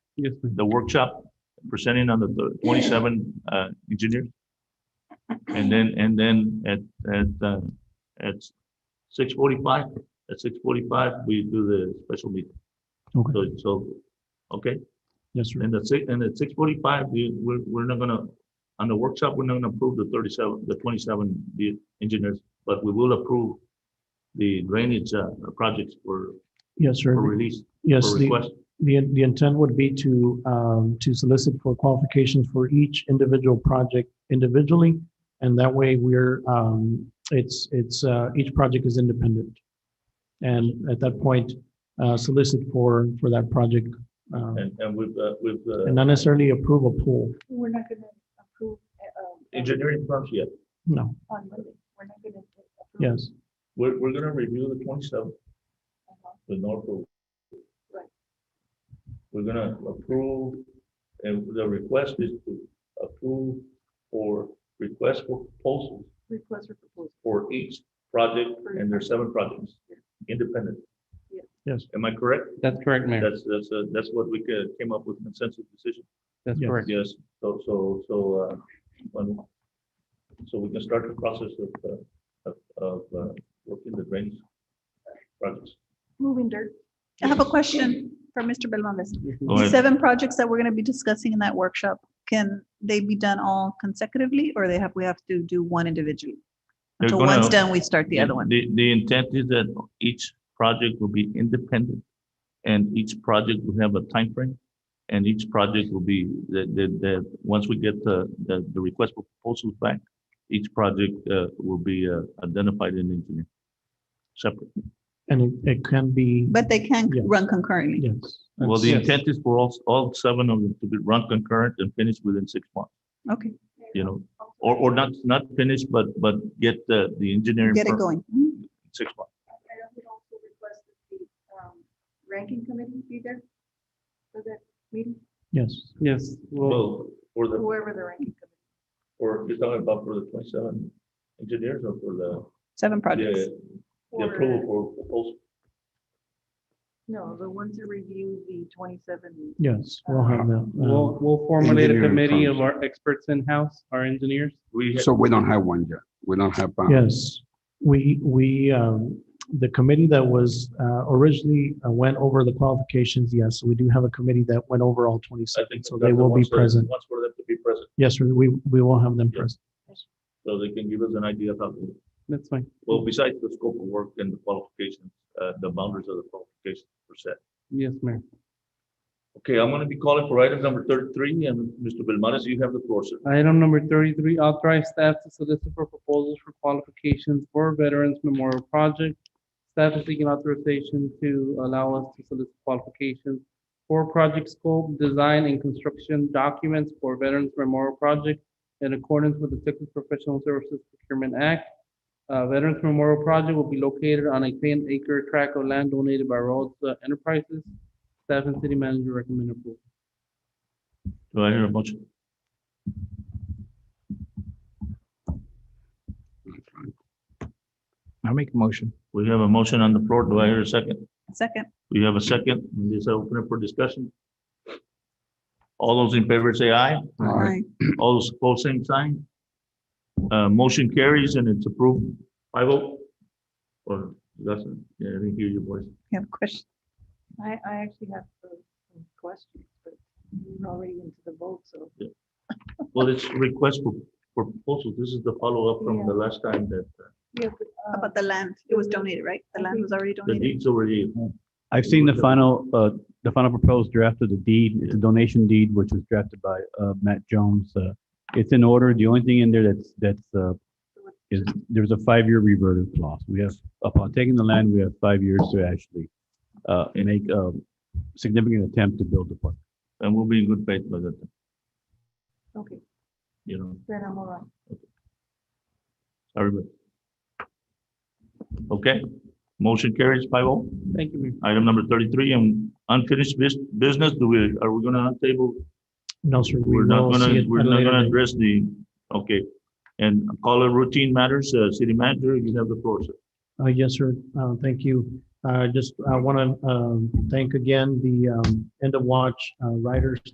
Yes, ma'am. the workshop presenting on the- the twenty-seven uh engineers. And then, and then at at uh at six forty-five, at six forty-five, we do the special meeting. Okay. So, so, okay, Yes, sir. and at six, and at six forty-five, we we're we're not gonna, on the workshop, we're not gonna approve the thirty-seven, the twenty-seven, the engineers, but we will approve the drainage uh projects for Yes, for sir. release, Yes, for the, request. the, the intent would be to, um, to solicit for qualifications for each individual project individually. And that way we're, um, it's, it's, uh, each project is independent. And at that point, uh, solicit for, for that project, um, And and with uh with uh and not necessarily approve a pool. We're not gonna approve, uh, um, engineering firms, yeah. No, on Monday, we're not gonna. approve. yes, We're, we're gonna review the twenty-seventh Uh-huh. with no approval. Right. We're gonna approve, and the request is to approve for request for proposals Request for proposal, for each project, and there's seven projects, independent. Yeah. Yes. Am I correct? That's correct, Mayor. That's, that's, uh, that's what we ca- came up with consensus decision. That's Yes. correct. Yes, so, so, so, uh, when- so we can start the process of, uh, of, of, uh, working the drainage projects. moving dirt. I have a question for Mr. Belmontes. Go The ahead. seven projects that we're gonna be discussing in that workshop, can they be done all consecutively, or they have, we have to do one individually? They're Until one's gonna- done, we start the other one. The, the intent is that each project will be independent and each project will have a time frame, And each project will be, that, that, that, once we get the, the, the request for proposals back, each project, uh, will be, uh, identified and engineered. Separate. and it, it can be, But they can Yeah. run concurrently. yes. Well, the Yes. intent is for all, all seven of them to be run concurrent and finished within six months, Okay, you know? Or, or not, not finished, but, but get the, the engineering. get it firm going. Mm-hmm. in Six months. um, Ranking committee be there for that meeting, Yes, Yes, well, Well, for the, whoever the ranking committee. or you're talking about for the twenty-seven engineers or for the? Seven projects. The the approval for proposal. No, the ones that review the twenty-seven. yes, we'll have that. uh, we'll, we'll formulate a engineering committee firms. of our experts in-house, our engineers. We, So we don't have one yet. We don't have. uh, Uh-huh. Yes, we, we, um, the committee that was uh, originally uh, went over the qualifications, yes, we do have a committee that went over all I 27, think. so that's they the will be ones that- present. Ones for them to be present, Yes, sir, we, we will have them Yeah. present. so they can give us an idea of how, That's fine. well, besides the scope of work and the qualifications, uh, the boundaries of the qualifications per se. Yes, Mayor. Okay, I'm gonna be calling for item number thirty-three, and Mr. Belmontes, you have the floor, sir. Item number thirty-three, authorize staff to solicit for proposals for qualifications for Veterans Memorial Project. Staff is seeking authorization to allow us to solicit qualifications for project scope, design, and construction documents for Veterans Memorial Project in accordance with the Texas Professional Services Procurement Act. Uh, Veterans Memorial Project will be located on a ten acre tract of land donated by Rhodes uh, Enterprises. Staff and city manager recommend approval. Do I hear a motion? I'll make a motion. We have a motion on the floor, do I hear a second? Second. We have a second, and this open up for discussion. All those in favor say aye. Aye. All those opposed, same sign. Uh, motion carries and it's approved. I vote. Or doesn't, yeah, I didn't hear your voice. You have a question? I, I actually have some questions, but we're already into the vote, so. Well, it's request for, for proposal. This is the follow-up from the last time that uh, About the land, it was donated, right? The land was already the donated. deeds already. I've seen the final, uh, the final proposed draft of the deed, it's a donation deed, which was drafted by, uh, Matt Jones. Uh, It's in order. The only thing in there that's, that's, uh, is there's a five-year reverter clause. We have, upon taking the land, we have five years to actually, uh, make a um, significant attempt to build the park. And we'll be in good faith by that, time, Okay, you know, then I'm all right. everybody. Okay, motion carries five oh. Thank you, Mayor. Item number thirty-three and unfinished bus- business, do we, are we gonna table No, sir, we We're not will see gonna, it we're at a not later gonna date. address the, okay. And call it routine matters, uh, city manager, you have the floor, sir. Uh, yes, sir, uh, thank you. I just, I want to thank again the um, End of um, Watch uh, Riders